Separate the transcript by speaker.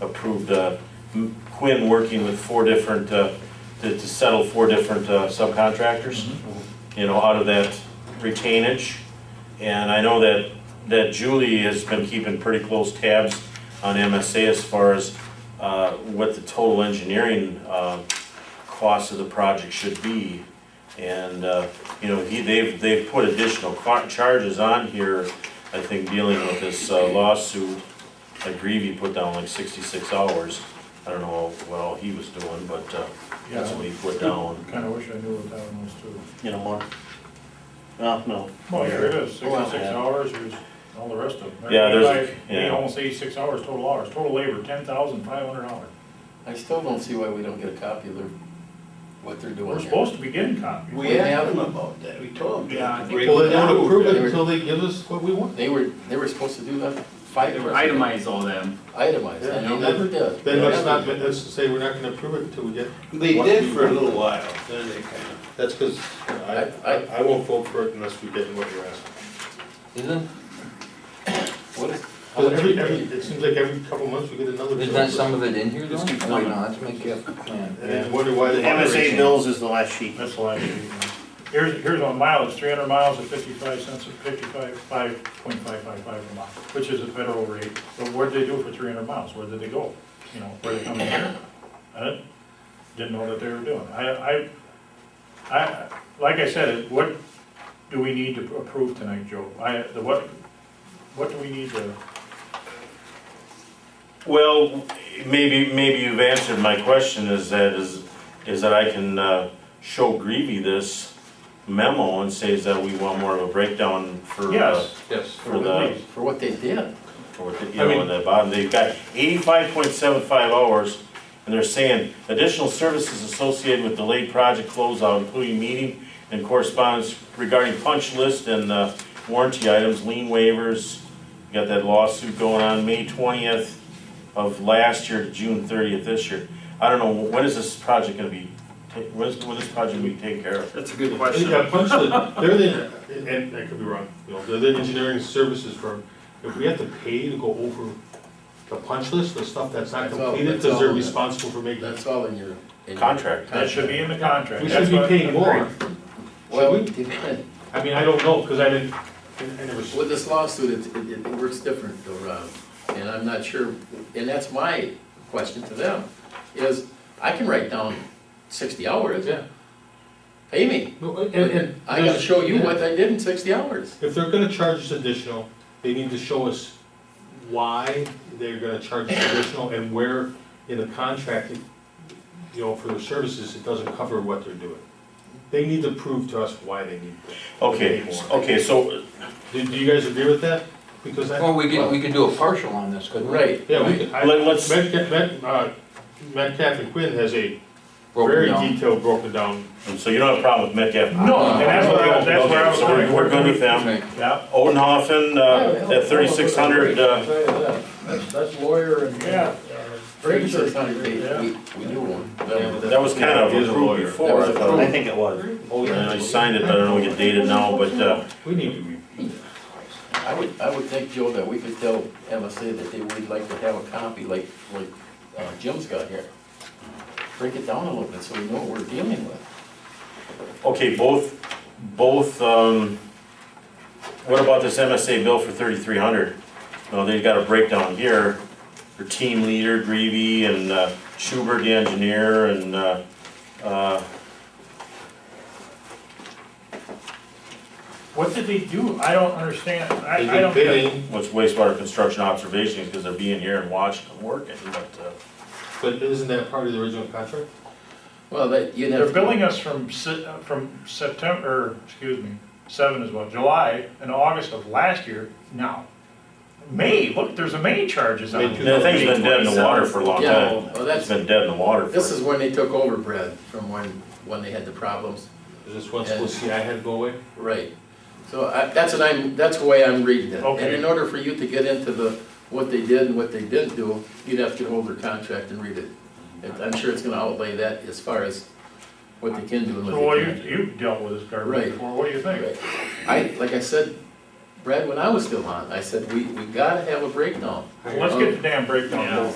Speaker 1: approved uh, M- Quinn working with four different, uh, to to settle four different uh, subcontractors, you know, out of that retainage. And I know that, that Julie has been keeping pretty close tabs on MSA as far as uh, what the total engineering uh, cost of the project should be. And, uh, you know, he, they've, they've put additional car- charges on here, I think, dealing with this uh, lawsuit. I grieve he put down like sixty-six hours. I don't know what all he was doing, but uh, that's what he put down,
Speaker 2: Kinda wish I knew what that one was too.
Speaker 3: you know, more. Oh, no,
Speaker 2: Well, here it is,
Speaker 3: Well,
Speaker 2: sixty-six
Speaker 3: yeah.
Speaker 2: hours, here's all the rest of them.
Speaker 1: Yeah, there's a-
Speaker 2: Like,
Speaker 1: yeah.
Speaker 2: eight- Almost eighty-six hours, total hours, total labor, ten thousand five hundred dollars.
Speaker 4: I still don't see why we don't get a copy of their, what they're doing
Speaker 2: We're
Speaker 4: here.
Speaker 2: supposed to be getting copies.
Speaker 5: We asked them about that, we told them.
Speaker 6: Yeah, I think-
Speaker 5: Break
Speaker 6: Well,
Speaker 5: it down.
Speaker 4: it
Speaker 7: until they give us what we want.
Speaker 4: They were, they were supposed to do that five
Speaker 6: They
Speaker 4: years
Speaker 6: were
Speaker 4: ago.
Speaker 6: itemized all them.
Speaker 4: Itemized, and they never did.
Speaker 7: Then let's not, let's say we're not gonna approve it until we get,
Speaker 5: They did for a little while, then they kind of,
Speaker 7: that's because I,
Speaker 4: I-
Speaker 7: I, I won't vote for it unless we get what you're asking.
Speaker 8: Isn't,
Speaker 4: What is?
Speaker 7: Because every, every, it seems like every couple months we get another.
Speaker 8: isn't
Speaker 7: bill.
Speaker 8: that some of it in here though?
Speaker 6: This keeps
Speaker 8: Oh, wait,
Speaker 6: coming.
Speaker 8: no, that's my gift plan.
Speaker 7: And then wonder why
Speaker 3: The
Speaker 7: they.
Speaker 3: MSA bills is the last sheet.
Speaker 2: That's the last sheet. Here's, here's on mileage, three hundred miles at fifty-five cents, at fifty-five, five point five five five a mile, which is a federal rate. But what did they do for three hundred miles? Where did they go? You know, where they come in here? I didn't- didn't know that they were doing. I, I, I, like I said, what do we need to approve tonight, Joe? I, the what, what do we need to,
Speaker 1: Well, maybe, maybe you've answered my question is that, is, is that I can, uh, show Greavy this memo and say is that we want more of a breakdown for, uh,
Speaker 2: yes,
Speaker 7: Yes.
Speaker 1: for the,
Speaker 2: please.
Speaker 4: For what they did.
Speaker 1: for what, the- you
Speaker 7: I
Speaker 1: know,
Speaker 7: mean-
Speaker 1: in the bottom, they've got eighty-five point seven five hours, and they're saying additional services associated with delayed project closeout, including meeting and correspondence regarding punch list and, uh, warranty items, lien waivers, We got that lawsuit going on, May twentieth of last year to June thirtieth this year. I don't know, when is this project gonna be, ta- when is, when is this project gonna be taken care of?
Speaker 6: That's a good
Speaker 7: They
Speaker 6: question.
Speaker 7: got punched, in- they're the, and- and I could be wrong, you know, they're the engineering services firm. If we have to pay to go over the punch list, the stuff that's not
Speaker 4: That's all-
Speaker 7: completed,
Speaker 4: that's
Speaker 7: because they're
Speaker 4: all.
Speaker 7: responsible for making.
Speaker 4: That's all in your. in your
Speaker 1: Contract.
Speaker 2: that should be in the contract.
Speaker 7: We
Speaker 2: That's
Speaker 7: should be
Speaker 2: what-
Speaker 7: paying more.
Speaker 4: Well,
Speaker 7: Should we?
Speaker 4: depend-
Speaker 7: I mean, I don't know, because I didn't, I I never. s-
Speaker 4: with this lawsuit, it, it, it works different though, Rob. And I'm not sure, and that's my question to them, is I can write down sixty hours,
Speaker 7: Yeah.
Speaker 4: pay me.
Speaker 7: No, and, and.
Speaker 4: I gotta show you
Speaker 7: Yeah.
Speaker 4: what I did in sixty hours.
Speaker 7: If they're gonna charge us additional, they need to show us why they're gonna charge us additional and where in the contract, you know, for the services, it doesn't cover what they're doing. They need to prove to us why they need.
Speaker 1: Okay, s- okay, so,
Speaker 7: Do, do you guys agree with that? Because I,
Speaker 8: Well, we could, we could do a partial on this, couldn't we?
Speaker 4: Right.
Speaker 7: yeah, we could, I,
Speaker 1: let- let's,
Speaker 7: Matt, Ca- Matt, uh, Matt Catherine Quinn has a
Speaker 8: Broken
Speaker 7: very
Speaker 8: down.
Speaker 7: detailed broken down.
Speaker 1: so you don't have a problem with Metcalf?
Speaker 2: No, and that's where I, that's where I was.
Speaker 1: So we're, we're good with them.
Speaker 8: Okay.
Speaker 2: Yeah,
Speaker 1: Odenhoffen,
Speaker 7: Oh,
Speaker 1: uh, at thirty-six hundred, uh,
Speaker 5: That's- that's lawyer and.
Speaker 2: Yeah.
Speaker 4: Thirty-six hundred feet,
Speaker 2: Yeah.
Speaker 4: we, we knew one.
Speaker 7: Yeah, but
Speaker 1: that was kind of
Speaker 7: He is a
Speaker 1: approved
Speaker 7: lawyer.
Speaker 1: before, I thought.
Speaker 3: I think it was.
Speaker 7: Oh,
Speaker 1: And
Speaker 7: yeah.
Speaker 1: I signed it, but I don't know, we get dated now, but, uh,
Speaker 7: We need to be.
Speaker 4: I would, I would think, Joe, that we could tell MSA that they would like to have a copy like, like uh, Jim's got here. Break it down a little bit so we know what we're dealing with.
Speaker 1: okay, both, both, um, what about this MSA bill for thirty-three hundred? Well, they've got a breakdown here, for team leader, Greavy, and uh, Schubert, the engineer, and, uh, uh,
Speaker 2: What did they do? I don't understand. I,
Speaker 7: They've
Speaker 2: I
Speaker 7: been
Speaker 2: don't get it.
Speaker 7: bidding,
Speaker 1: what's wastewater construction observations, because they're being here and watching and working, but, uh,
Speaker 7: but isn't that part of the original contract?
Speaker 4: Well, that, you'd
Speaker 2: They're
Speaker 4: have, to-
Speaker 2: billing us from Se- uh, from September, or, excuse me, seven as well, July and August of last year now. May, look, there's a May charges on
Speaker 7: May
Speaker 2: it.
Speaker 7: two-
Speaker 1: the thing's been dead in the water for a long
Speaker 4: yeah,
Speaker 1: time.
Speaker 4: well,
Speaker 1: It's
Speaker 4: that's,
Speaker 1: been dead in the water for.
Speaker 4: this is when they took over, Brad, from when, when they had the problems.
Speaker 7: Is this one supposed to see I had to go away?
Speaker 4: Right. So I, that's what I'm, that's the way I'm reading it. And
Speaker 2: Okay.
Speaker 4: in order for you to get into the, what they did and what they didn't do, you'd have to get hold of their contract and read it. And I'm sure it's gonna outlay that as far as what they can do and what
Speaker 2: So, well,
Speaker 4: they
Speaker 2: you,
Speaker 4: can't do.
Speaker 2: you've dealt with this garbage
Speaker 4: Right.
Speaker 2: before, what do you think?
Speaker 4: Right. I, like I said, Brad, when I was still on, I said, we, we gotta have a breakdown.
Speaker 2: Well, Let's get the damn breakdown.
Speaker 6: Yeah.